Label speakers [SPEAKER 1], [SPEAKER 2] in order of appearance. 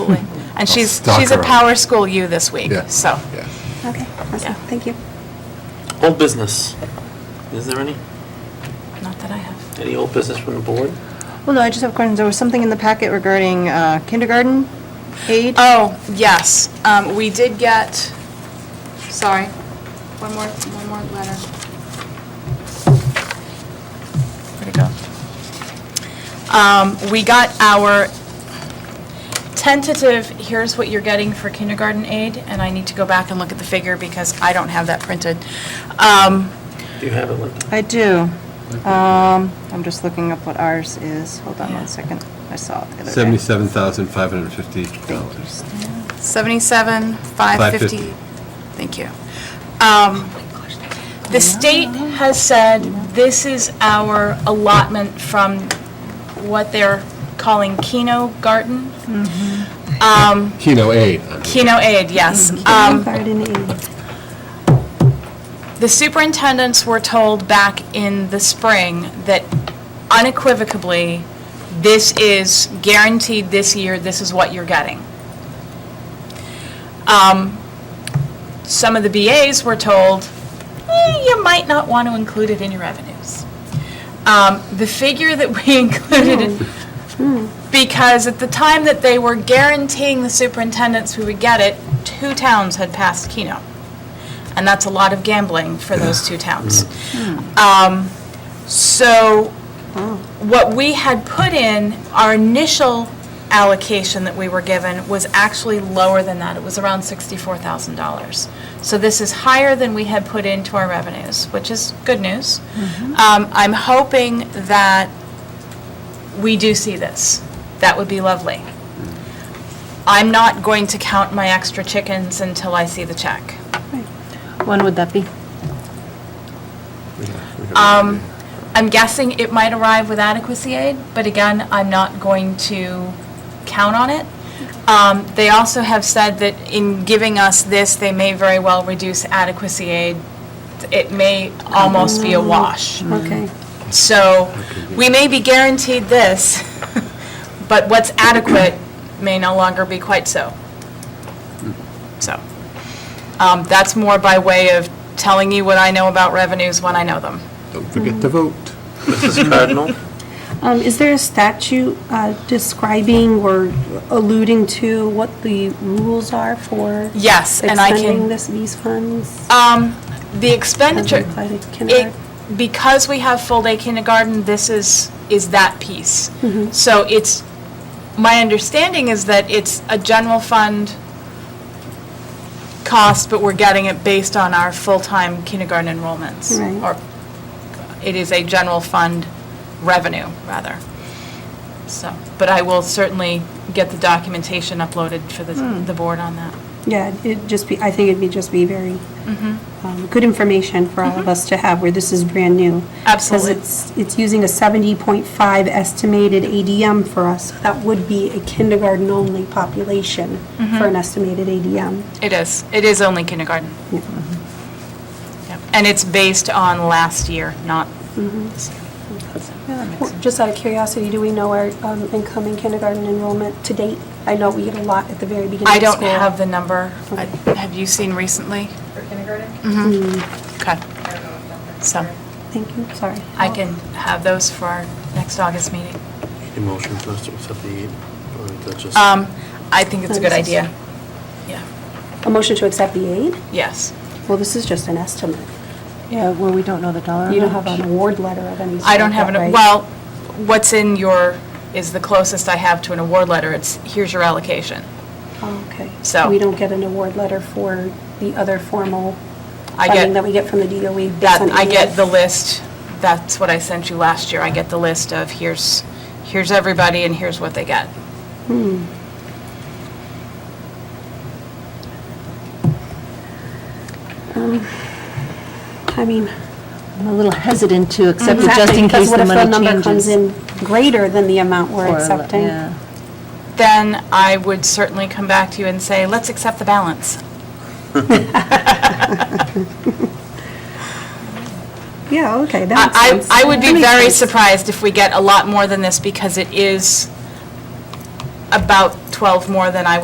[SPEAKER 1] Absolutely. And she's,
[SPEAKER 2] stalk
[SPEAKER 1] she's a
[SPEAKER 2] her.
[SPEAKER 1] Power School U this week,
[SPEAKER 2] Yeah.
[SPEAKER 1] so.
[SPEAKER 2] Yeah.
[SPEAKER 3] Okay, awesome,
[SPEAKER 1] Yeah.
[SPEAKER 3] thank you.
[SPEAKER 4] Old business. Is there any?
[SPEAKER 1] Not that I have.
[SPEAKER 4] Any old business from the board?
[SPEAKER 3] Well, no, I just have questions. There was something in the packet regarding uh, kindergarten aid.
[SPEAKER 1] Oh, yes. Um, We did get, sorry, one more, one more letter. Where'd it go? Um, We got our tentative, here's what you're getting for kindergarten aid, and I need to go back and look at the figure because I don't have that printed. Um,
[SPEAKER 4] Do you have it, Linda?
[SPEAKER 3] I do. Um, I'm just looking up what ours is. Hold on one second. I saw it the other day.
[SPEAKER 5] Seventy-seven thousand five hundred fifty dollars.
[SPEAKER 1] 77, 550.
[SPEAKER 5] 550.
[SPEAKER 1] Thank you. Um, The state has said this is our allotment from what they're calling Keno Garden, Um,
[SPEAKER 5] Keno aid. I mean.
[SPEAKER 1] Keno Aid, yes.
[SPEAKER 6] Mm-hmm.
[SPEAKER 1] Um,
[SPEAKER 3] Kindergarten aid.
[SPEAKER 1] The superintendents were told back in the spring that unequivocally, this is guaranteed this year, this is what you're getting. Um, Some of the BAs were told, "Eh, you might not want to include it in your revenues. Um, The figure that we included, because at the time that they were guaranteeing the superintendents we would get it, two towns had passed Keno. And that's a lot of gambling for those two towns. Um, So what we had put in, our initial allocation that we were given was actually lower than that. It was around $64,000. So this is higher than we had put into our revenues, which is good news. Um, I'm hoping that we do see this. That would be lovely. I'm not going to count my extra chickens until I see the check.
[SPEAKER 3] When would that be?
[SPEAKER 1] Um, I'm guessing it might arrive with adequacy aid, but again, I'm not going to count on it. Um, They also have said that in giving us this, they may very well reduce adequacy aid. It may almost be a wash.
[SPEAKER 3] Okay.
[SPEAKER 1] So we may be guaranteed this, but what's adequate may no longer be quite so. So um, that's more by way of telling you what I know about revenues when I know them.
[SPEAKER 2] Don't forget to vote.
[SPEAKER 4] Mrs. Cardinal?
[SPEAKER 6] Um, Is there a statute uh, describing or alluding to what the rules are for
[SPEAKER 1] Yes, and I
[SPEAKER 6] expending
[SPEAKER 1] can,
[SPEAKER 6] this, these funds?
[SPEAKER 1] um, the
[SPEAKER 6] as
[SPEAKER 1] expenditure,
[SPEAKER 6] applied to
[SPEAKER 1] it,
[SPEAKER 6] kindergarten?
[SPEAKER 1] because we have full-day kindergarten, this is, is that piece.
[SPEAKER 6] Mm-hmm.
[SPEAKER 1] So it's, my understanding is that it's a general fund cost, but we're getting it based on our full-time kindergarten enrollments.
[SPEAKER 6] Right.
[SPEAKER 1] Or it is a general fund revenue, rather. So, but I will certainly get the documentation uploaded for the,
[SPEAKER 6] Hmm.
[SPEAKER 1] the board on that.
[SPEAKER 6] Yeah, it'd just be, I think it'd be, just be very
[SPEAKER 1] Mm-hmm.
[SPEAKER 6] um, good information for all of us to have, where this is brand new.
[SPEAKER 1] Absolutely.
[SPEAKER 6] Because it's, it's using a 70.5 estimated ADM for us. That would be a kindergarten-only population
[SPEAKER 1] Mm-hmm.
[SPEAKER 6] for an estimated ADM.
[SPEAKER 1] It is. It is only kindergarten. Yep. And it's based on last year, not
[SPEAKER 6] Mm-hmm.
[SPEAKER 1] this year.
[SPEAKER 6] Just out of curiosity, do we know our um, incoming kindergarten enrollment to date? I know we get a lot at the very beginning of school.
[SPEAKER 1] I don't have the number. I- Have you seen recently? Mm-hmm.
[SPEAKER 7] for kindergarten.
[SPEAKER 1] Okay,
[SPEAKER 7] I don't know if that's-
[SPEAKER 1] so
[SPEAKER 6] Mm, Thank you, sorry.
[SPEAKER 1] I can have those for our next August meeting.
[SPEAKER 4] Need a motion for us to accept the aid? Or is that just-
[SPEAKER 1] Um, I think it's a good idea. Yeah,
[SPEAKER 6] A motion to accept the aid?
[SPEAKER 1] yes.
[SPEAKER 6] Well, this is just an estimate.
[SPEAKER 3] Yeah, well, we don't know the dollar
[SPEAKER 6] You don't have
[SPEAKER 3] amount.
[SPEAKER 6] an award letter of any sort.
[SPEAKER 1] I don't have, an
[SPEAKER 6] right?
[SPEAKER 1] well, what's in your, is the closest I have to an award letter. It's, here's your allocation.
[SPEAKER 6] Oh, Okay.
[SPEAKER 1] So-
[SPEAKER 6] We don't get an award letter for the other formal
[SPEAKER 1] I
[SPEAKER 6] funding
[SPEAKER 1] get-
[SPEAKER 6] that we get from the E. DOE based
[SPEAKER 1] That,
[SPEAKER 6] on
[SPEAKER 1] I
[SPEAKER 6] ADM.
[SPEAKER 1] get the list, that's what I sent you last year, I get the list of here's, here's everybody and here's what they get.
[SPEAKER 6] I mean.
[SPEAKER 3] I'm a little hesitant to accept it just
[SPEAKER 6] exactly,
[SPEAKER 3] in
[SPEAKER 6] because
[SPEAKER 3] case the money changes.
[SPEAKER 6] What if the number comes in greater than the amount we're
[SPEAKER 3] Or,
[SPEAKER 6] accepting?
[SPEAKER 3] yeah.
[SPEAKER 1] Then I would certainly come back to you and say, let's accept the balance.
[SPEAKER 6] Yeah, okay, that
[SPEAKER 1] I,
[SPEAKER 6] makes sense.
[SPEAKER 1] I I would
[SPEAKER 6] That
[SPEAKER 1] be
[SPEAKER 6] makes
[SPEAKER 1] very
[SPEAKER 6] sense.
[SPEAKER 1] surprised if we get a lot more than this because it is about 12 more than I would